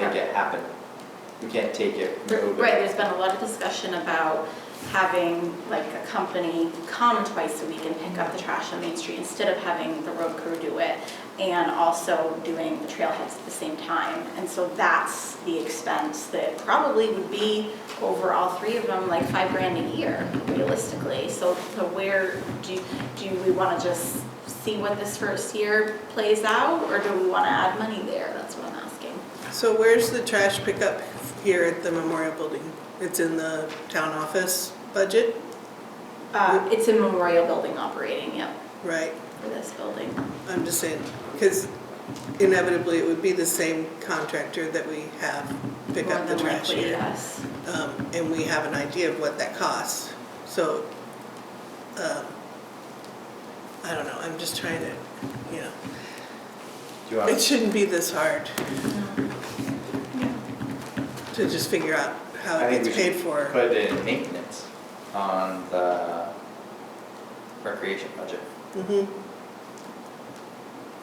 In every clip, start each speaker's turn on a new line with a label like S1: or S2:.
S1: happen. We can't take it.
S2: Oh, Right,
S1: no, but-
S2: there's been a lot of discussion about having like a company come twice a week and pick up the trash on Main Street instead of having the road crew do it and also doing the trailheads at the same time. And so that's the expense that probably would be over all three of them, like five grand a year realistically. So so where, do, do we want to just see what this first year plays out or do we want to add money there? That's what I'm asking.
S3: So where's the trash pickup here at the Memorial Building? It's in the town office budget,
S2: Uh, It's a memorial building operating, yep.
S3: right?
S2: for this building.
S3: I'm just saying, because inevitably it would be the same contractor that we have pick
S2: More
S3: up the
S2: than
S3: trash
S2: likely,
S3: here.
S2: yes.
S3: Um, And we have an idea of what that costs, so, um, I don't know, I'm just trying to, you know,
S1: Do you want-
S3: it shouldn't be this hard to just figure out how
S1: I
S3: it
S1: think we
S3: gets uh, paid
S1: should
S3: for.
S1: Put in maintenance on the recreation budget.
S3: Mhm,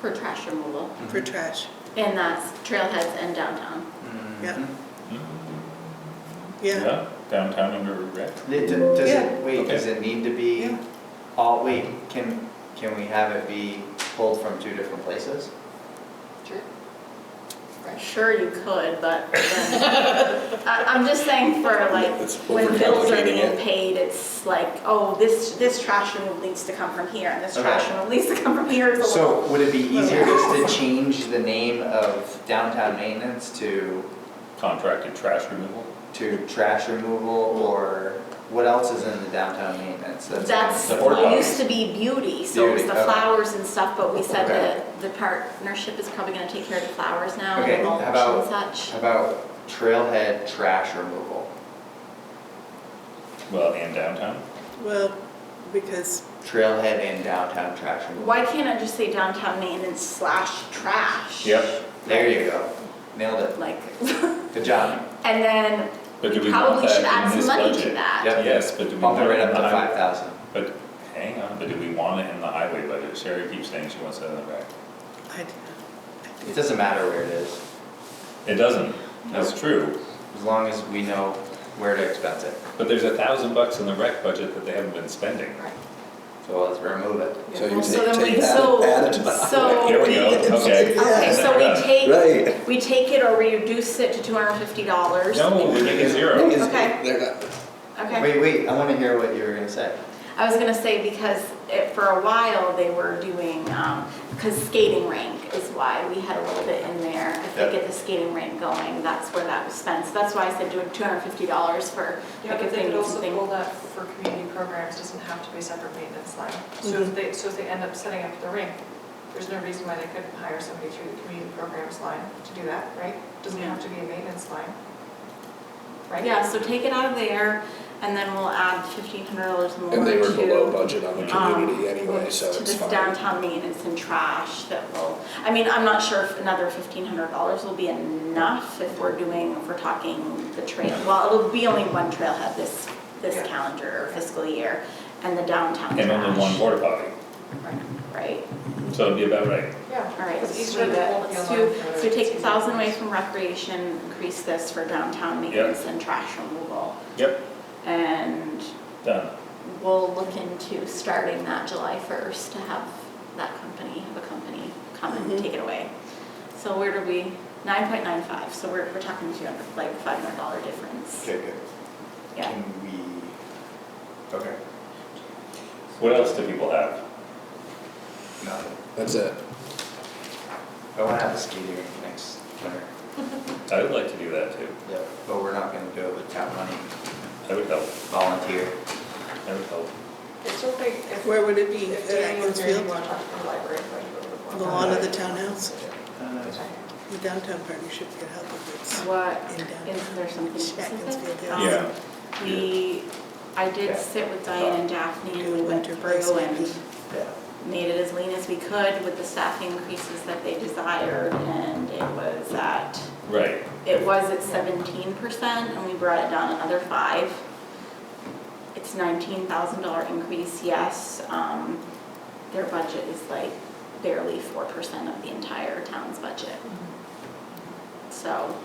S2: For trash removal.
S3: For
S1: Mm-hmm.
S3: trash,
S2: And that's trailheads and downtown.
S3: yeah.
S1: Mhm.
S3: yeah.
S4: Hmm? Downtown and River Rec.
S1: It- d- Does
S3: Yeah.
S1: it, wait, does
S4: Okay.
S1: it need to be
S3: Yeah.
S1: all, wait, can, can we have it be pulled from two different places?
S2: Sure you could, but then- I, I'm just saying for like,
S5: It's
S2: when bills are
S5: overcomplicating
S2: getting
S5: it.
S2: paid, it's like, oh, this, this trash removal needs to come from here and this
S1: Okay.
S2: trash removal needs to come from here. It's a
S1: So
S2: little-
S1: would it be easier just to change the name of downtown maintenance to,
S4: Contracted trash removal.
S1: to trash removal or what else is in the downtown maintenance?
S2: That's,
S1: the board
S2: it
S1: policy.
S2: used to be beauty, so it was
S1: Beauty, okay.
S2: the flowers and stuff, but we said
S1: Okay.
S2: that the partnership is probably gonna take care of the flowers now
S1: Okay,
S2: and
S1: how
S2: mulch and
S1: about-
S2: such.
S1: How about trailhead trash removal?
S4: Well, and downtown.
S3: Well, because,
S1: Trailhead and downtown trash removal.
S2: Why can't I just say downtown maintenance slash trash?
S4: Yep.
S1: There you go. Nailed it.
S2: Like,
S1: Good job.
S2: and then
S4: But
S2: we
S4: do we want
S2: probably
S4: that
S2: should
S4: in
S2: add some
S4: this
S2: money to
S4: budget?
S2: that.
S1: Yep.
S4: Yes, but do
S1: Bump
S4: we want
S1: it
S4: it
S1: right
S4: in
S1: up
S4: the
S1: to five
S4: highway?
S1: thousand.
S4: But hang on, but do we want it in the highway budget? Sherry keeps saying she wants it in the rec.
S3: I,
S1: It doesn't matter where it is,
S4: It doesn't. That's true.
S1: as long as we know where to expense it.
S4: But there's a thousand bucks in the rec budget that they haven't been spending.
S2: Right.
S1: So let's remove it.
S5: So
S2: Well,
S5: you
S2: so
S5: take,
S2: then
S5: take
S2: we-
S5: that,
S2: so-
S5: add it to the
S2: so-
S5: highway.
S4: Here we go, okay.
S2: Oh, Okay, so we
S4: Yeah.
S2: take,
S5: Right.
S2: we take it or we reduce it to two hundred and fifty dollars.
S4: No, we make it zero.
S5: Because
S2: Okay.
S5: they're not-
S2: Okay,
S1: Wait, wait, I wanna hear what you were gonna say.
S2: I was gonna say because it, for a while they were doing, um, cause skating rink is why we had a little bit in there. If they
S1: Yep.
S2: get the skating rink going, that's where that was spent, so that's why I said doing two hundred and fifty dollars for
S6: Yeah,
S2: like
S6: but
S2: if
S6: they
S2: they
S6: could
S2: need
S6: also
S2: something.
S6: pull that for community programs, doesn't have to be a separate maintenance line. So
S2: Mm-hmm.
S6: if they, so if they end up setting up the rink, there's no reason why they couldn't hire somebody through the community programs line to do that, right? Doesn't
S2: Yeah.
S6: have to be a maintenance line, right?
S2: Yeah, so take it out of there, and then we'll add fifteen hundred dollars more to.
S5: And they were below budget on the
S2: um,
S5: community anyway, so
S2: To
S5: it's
S2: this
S5: fine.
S2: downtown maintenance and trash that will, I mean, I'm not sure if another fifteen hundred dollars will be enough if we're doing, if we're talking the trail. Well, it'll be only one trailhead this, this
S6: Yeah.
S2: calendar or fiscal year, and the downtown trash.
S4: And only one border potty.
S2: Right,
S4: So it'd be about right.
S6: Yeah.
S2: all right,
S6: It's
S2: let's do
S6: easier to
S2: that.
S6: pull the
S2: Let's
S6: line
S2: do,
S6: for
S2: so take a
S6: community
S2: thousand away
S6: programs.
S2: from recreation, increase this for downtown maintenance and trash removal.
S4: Yep,
S2: And
S4: done.
S2: we'll look into starting that July 1st to have that company, have a company come and
S3: Mm-hmm.
S2: take it away. So where do we, 9.95, so we're, we're talking 200, like $500 difference.
S1: Okay, good.
S2: Yeah.
S1: Can we, okay,
S4: What else do people have?
S1: nothing.
S5: That's it.
S1: I wanna have a skating rink next winter.
S4: I would like to do that too.
S1: Yeah. But we're not gonna do it with town money,
S4: I would help.
S1: volunteer.
S4: I would help.
S6: I still think if.
S3: where would it be?
S6: if
S3: At
S6: Dan
S3: Edmonds
S6: was here, you
S3: Field?
S6: want to talk to the library, like. you would want
S3: The
S6: to-
S3: lawn of the townhouse?
S1: Uh,
S3: The downtown partnership could help with
S2: What,
S3: In downtown.
S2: is there something
S3: this. Check and
S2: specific?
S3: field,
S2: Um,
S4: Yeah.
S2: We, I
S1: Yeah.
S2: did sit with Diane and Daphne and we went
S3: Winter breaks
S2: through
S3: maybe.
S2: and
S1: Yeah.
S2: made it as lean as we could with the staff increases that they desired and it was at
S4: Right.
S2: It was at seventeen percent and we brought it down another five. It's nineteen thousand dollar increase, yes. Um, their budget is like barely four percent of the entire town's budget. So